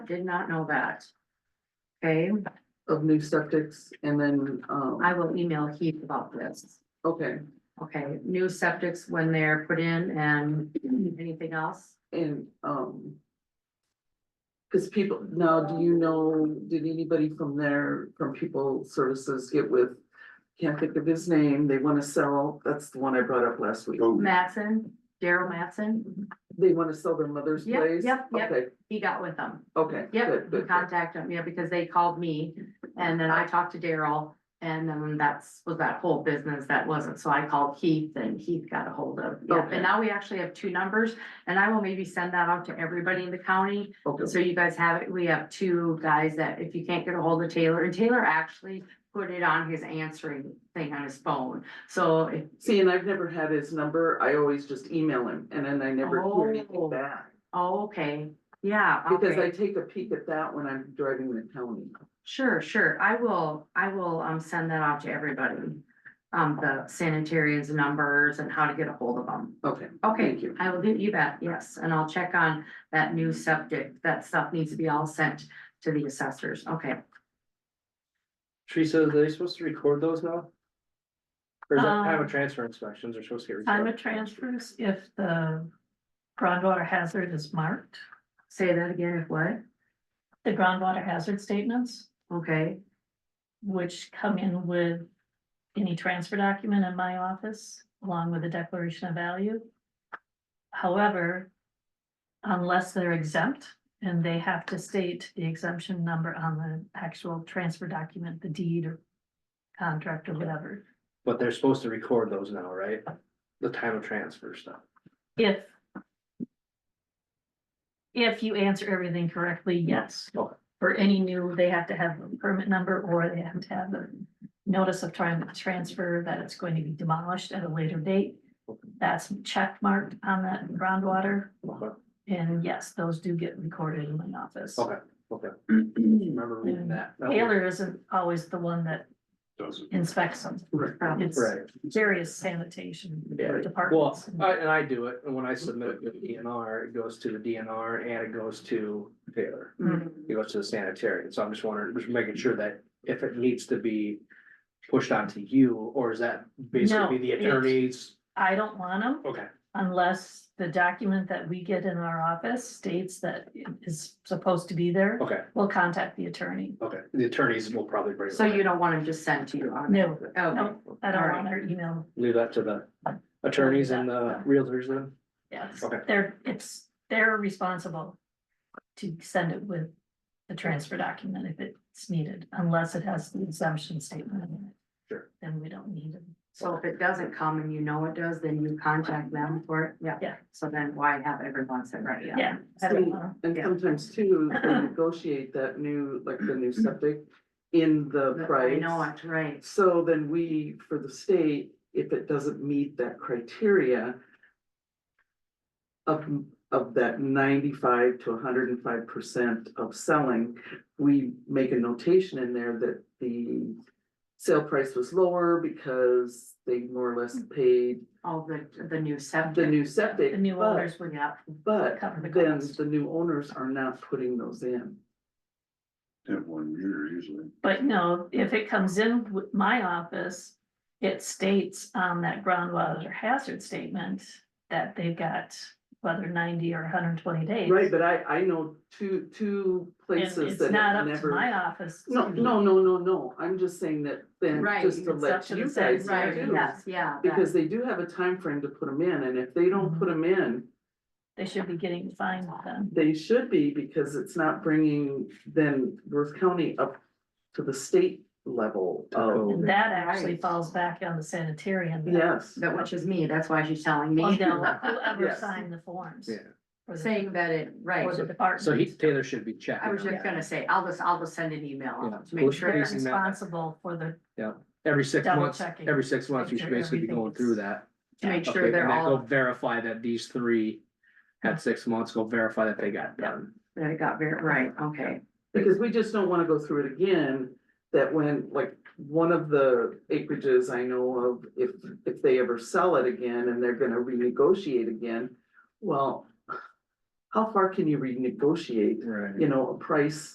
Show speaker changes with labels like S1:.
S1: Did not know that. Okay,
S2: of new septics and then, um,
S1: I will email Heath about this.
S2: okay,
S1: Okay, new septics when they're put in and anything else?
S2: and, um. Cause people, now, do you know, did anybody from there, from People Services get with, can't think of his name, they wanna sell, that's the one I brought up last week.
S3: Oh,
S1: Matson, Daryl Matson,
S2: They wanna sell their mother's
S1: Yep,
S2: place?
S1: yep, yep.
S2: Okay,
S1: he got with them.
S2: okay.
S1: Yep,
S2: good,
S1: he
S2: good, good.
S1: contacted me, yeah, because they called me and then I talked to Daryl. And then that's, was that whole business that wasn't, so I called Keith and Keith got a hold of, yeah,
S2: Okay.
S1: and now we actually have two numbers. And I will maybe send that out to everybody in the county
S2: Okay,
S1: So you guys have, we have two guys that if you can't get a hold of Taylor, and Taylor actually put it on his answering thing on his phone. So if,
S2: see, and I've never had his number, I always just email him, and then I never hear
S1: Oh.
S2: anything back.
S1: oh, okay, yeah,
S2: Because I
S1: okay,
S2: take a peek at that when I'm driving the county.
S1: sure, sure. I will, I will, um, send that out to everybody. Um, the sanitarians numbers and how to get a hold of them.
S2: Okay,
S1: Okay,
S2: thank you.
S1: I will do you bet, yes, and I'll check on that new subject. That stuff needs to be all sent to the assessors, okay.
S4: Teresa, are they supposed to record those now? Or is that time
S5: Um,
S4: of transfer inspections are supposed to get
S5: Time
S4: recorded?
S5: of transfers, if the groundwater hazard is marked,
S1: Say that again, if what?
S5: the groundwater hazard statements,
S1: Okay,
S5: which come in with any transfer document in my office, along with a declaration of value. However, unless they're exempt and they have to state the exemption number on the actual transfer document, the deed or contract or whatever,
S4: But they're supposed to record those now, right? The time of transfer stuff.
S5: if if you answer everything correctly, yes.
S4: Okay.
S5: For any new, they have to have a permit number or they have to have a notice of trying to transfer that it's going to be demolished at a later date. That's check marked on that groundwater.
S4: Okay.
S5: And yes, those do get recorded in my office.
S4: Okay, okay. Remember reading that. That was-
S5: Taylor isn't always the one that
S3: doesn't.
S5: inspects them.
S2: Mm-hmm.
S1: um,
S5: It's
S4: Right.
S5: various sanitation
S4: Yeah. Well,
S5: departments.
S4: I, and I do it, and when I submit it to the DNR, it goes to the DNR and it goes to Taylor.
S1: mm,
S4: It goes to the sanitarian, so I'm just wondering, just making sure that if it needs to be pushed onto you, or is that basically
S5: No,
S4: the
S5: it-
S4: attorney's?
S5: I don't want them.
S4: Okay,
S5: Unless the document that we get in our office states that it is supposed to be there,
S4: okay,
S5: we'll contact the attorney.
S4: okay, the attorneys will probably bring. it
S1: So
S4: back.
S1: you don't want them just sent to you on?
S5: No,
S1: Okay,
S5: no, I don't want their email,
S4: Leave that to the attorneys and the realtors then?
S5: yes,
S4: Okay.
S5: they're, it's, they're responsible to send it with the transfer document if it's needed, unless it has the exemption statement in it.
S4: Sure.
S5: Then we don't need it.
S1: so if it doesn't come and you know it does, then you contact them for it, yeah.
S5: Yeah.
S1: So then why have everyone send right, yeah.
S5: Yeah. I don't wanna-
S2: And
S1: Yeah.
S2: sometimes too, they negotiate that new, like the new septic in the
S1: I
S2: price.
S1: know it, right,
S2: So then we, for the state, if it doesn't meet that criteria of, of that ninety-five to hundred and five percent of selling, we make a notation in there that the sale price was lower because they more or less paid
S1: all the, Mm. the new
S2: the
S1: septic,
S2: new septic.
S5: The new
S2: but-
S5: owners were,
S1: yeah,
S2: But
S5: Cover the
S2: then
S5: cost.
S2: the new owners are not putting those in.
S3: At one year usually.
S5: but no, if it comes in with my office, it states on that groundwater hazard statement that they've got whether ninety or hundred and twenty days.
S2: Right, but I, I know two, two
S5: And
S2: places
S5: it's
S2: that
S5: not
S2: have
S5: up to my
S2: never.
S5: office.
S2: No,
S5: to-
S2: no, no, no, no, I'm just saying that then,
S1: Right,
S2: just to
S5: it's up
S2: let
S5: to
S2: you
S5: the
S2: guys
S5: state,
S1: right,
S5: Yeah, it
S2: know.
S1: yes, yeah. that-
S2: Because they do have a time frame to put them in, and if they don't put
S5: Mm-hmm.
S2: them in,
S5: They should be getting fined then.
S2: they should be, because it's not bringing then Worth County up to the state level
S4: Oh,
S2: of,
S5: And that actually
S1: Right.
S5: falls back on the sanitarian. then.
S2: yes.
S1: That which is me, that's why she's telling
S5: Well,
S1: me,
S5: Oh, no, Whoever
S2: Yes.
S5: signed the forms.
S4: Yeah.
S5: for the-
S1: saying that it, right.
S5: For the department.
S4: So he, Taylor should be checking.
S1: I was
S4: on
S1: just
S4: that.
S1: gonna say, I'll just, I'll just send an
S4: Yeah.
S1: email to
S4: Well,
S1: make
S5: They're
S1: sure,
S4: it's- Raising that.
S5: responsible for the,
S4: Every six
S5: Double
S4: months,
S5: checking.
S4: every six months, you
S5: Make
S4: should
S5: sure
S4: basically be going
S5: everything's-
S4: through that.
S1: to make
S4: Okay,
S1: sure they're
S4: and then Go
S1: all,
S4: verify that these three had six months, go verify that they got done.
S1: that it got very, right, okay.
S2: Because we just don't wanna go through it again, that when, like, one of the acreages I know of, if, if they ever sell it again and they're gonna renegotiate again, well, how far can you renegotiate,
S4: Right.
S2: you know, a price